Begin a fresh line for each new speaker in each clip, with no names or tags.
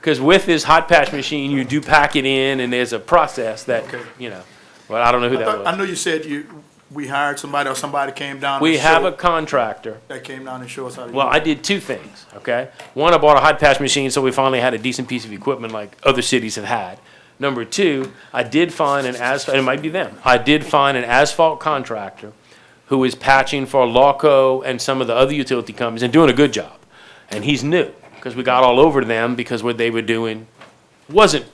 Because with this hot patch machine, you do pack it in, and there's a process that,
Okay.
you know, well, I don't know who
I
that
thought- I
was.
know you said you, we hired somebody or somebody came down. and
We have a
showed-
contractor.
That came down and showed us how to.
Well,
use
I did two things, okay? One, I bought a hot patch machine, so we finally had a decent piece of equipment like other cities have had. Number two, I did find an asphalt, it might be them, I did find an asphalt contractor who is patching for Lawco and some of the other utility companies and doing a good job. And he's new, because we got all over them because what they were doing wasn't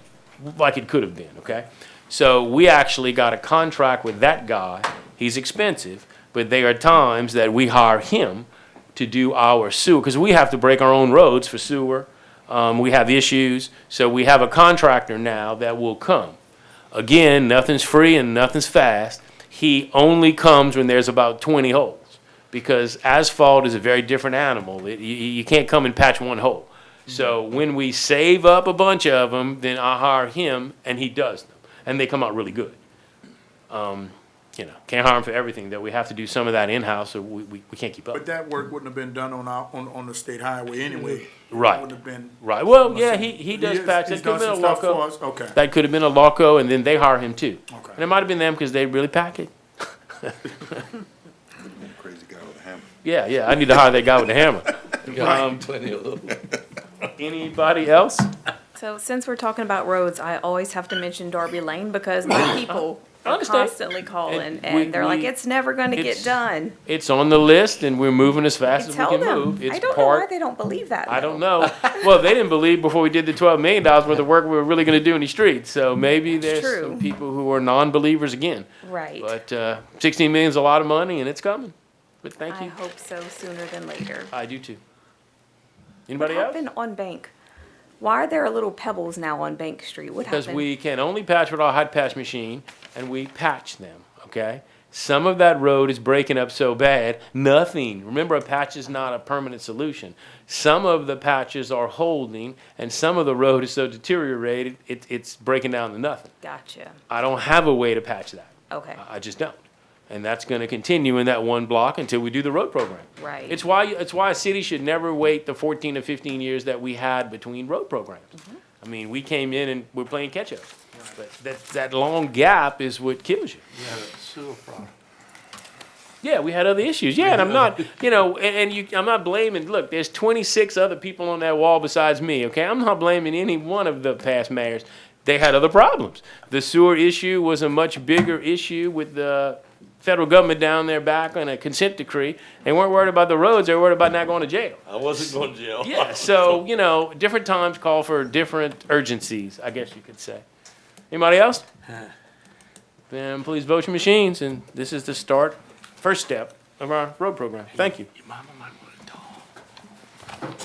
like it could have been, okay? So we actually got a contract with that guy. He's expensive, but there are times that we hire him to do our sewer, because we have to break our own roads for sewer. Um, we have issues, so we have a contractor now that will come. Again, nothing's free and nothing's fast. He only comes when there's about twenty holes, because asphalt is a very different animal. It- you, you can't come and patch one hole. So when we save up a bunch of them, then I hire him and he does them, and they come out really good. Um, you know, can't hire him for everything. Though we have to do some of that in house, so we, we, we can't keep up.
But that work wouldn't have been done on our, on, on the state highway anyway.
Right.
Wouldn't have been.
Right. Well, yeah, he, he does
is-
patch.
he's
That could have
done
been a
some stuff for
Loco.
us? Okay.
That could have been a Loco, and then they hire him too.
Okay.
And it might have been them because they really pack it.
Crazy guy with a hammer.
Yeah, yeah. I need to hire that guy with the hammer. Um,
Plenty of little.
anybody else?
So since we're talking about roads, I always have to mention Darby Lane because my people
I
are
understand.
constantly calling
And we-
and they're like,
we-
it's never gonna
it's-
get done.
It's on the list, and we're moving as
I
fast as we
tell
can
them,
move. It's
I don't know
part
why they don't believe that.
I don't know. Well, they didn't believe before we did the twelve million dollars worth of work we were really gonna do in the streets, so maybe there's
true.
some people who are non-believers again.
Right.
But, uh, sixteen million's a lot of money and it's coming, but thank
I
you.
hope so sooner than later.
I do too.
What
Anybody else?
happened on Bank? Why are there little pebbles now on Bank Street? What
Because
happened?
we can only patch with our hot patch machine, and we patch them, okay? Some of that road is breaking up so bad, nothing. Remember, a patch is not a permanent solution. Some of the patches are holding, and some of the road is so deteriorated, it, it's breaking down to nothing.
Gotcha.
I don't have a way to patch that.
Okay.
I I just don't. And that's gonna continue in that one block until we do the road program.
Right.
It's why, it's why a city should never wait the fourteen to fifteen years that we had between road programs.
Mm-hmm.
I mean, we came in and we're playing catch-up. But that, that long gap is what kills you.
Yeah, sewer problem.
Yeah, we had other issues. Yeah, and I'm not, you know, and, and you, I'm not blaming. Look, there's 26 other people on that wall besides me. Okay, I'm not blaming any one of the past mayors. They had other problems. The sewer issue was a much bigger issue with the federal government down there back on a consent decree. They weren't worried about the roads. They were worried about not going to jail.
I wasn't going to jail.
Yeah. So you know, different times call for different urgencies. I guess you could say. Anybody else? Then please vote your machines, and this is the start, first step of our road program. Thank you.
Your mama might want to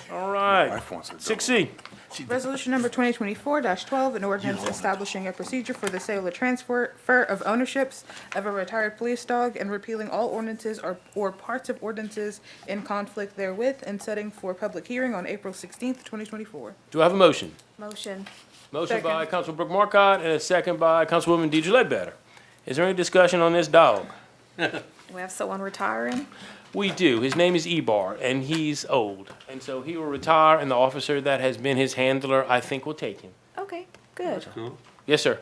talk.
All
My
right.
phone's a
Six
double.
C.
Resolution number twenty twenty-four twelve, an ordinance establishing a procedure for the sale or transfer fur of ownerships of a retired police dog and repealing all ordinances or, or parts of ordinances in conflict therewith and setting for public hearing on April sixteenth, twenty twenty-four.
Do I have a motion?
Motion.
Motion
Second.
by Councilman Brooke Marcotte and a second by Councilwoman Deidre Ledbetter. Is there any discussion on this dog?
We have someone retiring?
We do. His name is Ebar, and he's old. And so he will retire, and the officer that has been his handler, I think, will take him.
Okay, good.
Yes, sir.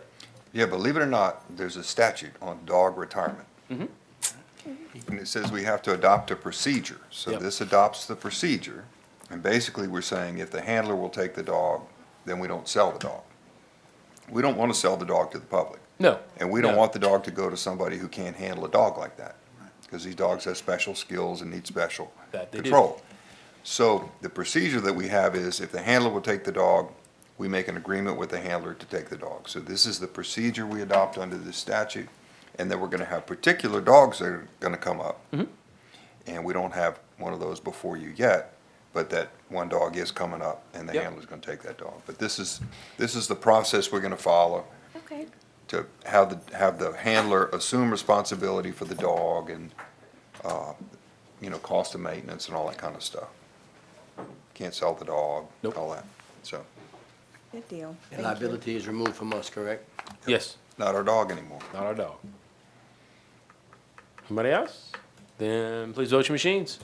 Yeah, believe it or not, there's a statute on dog retirement. And it says we have to adopt a procedure. So
Yep.
this adopts the procedure. And basically, we're saying if the handler will take the dog, then we don't sell the dog. We don't want to sell the dog to the public.
No.
And we don't
No.
want the dog to go to somebody who can't handle a dog like that. Because these dogs have special skills and need special
That they do.
control. So the procedure that we have is if the handler will take the dog, we make an agreement with the handler to take the dog. So this is the procedure we adopt under this statute. And then we're gonna have particular dogs that are gonna come up.
Mm-hmm.
And we don't have one of those before you yet, but that one dog is coming up and the
Yep.
handler's gonna take that dog. But this is, this is the process we're gonna follow
Okay.
to have the, have the handler assume responsibility for the dog and, uh, you know, cost of maintenance and all that kind of stuff. Can't sell the dog,
Nope.
all that. So,
Good deal.
And
Thank you.
liability is removed from us, correct?
Yes.
not our dog anymore.
Not our dog. Anybody else? Then please vote your machines.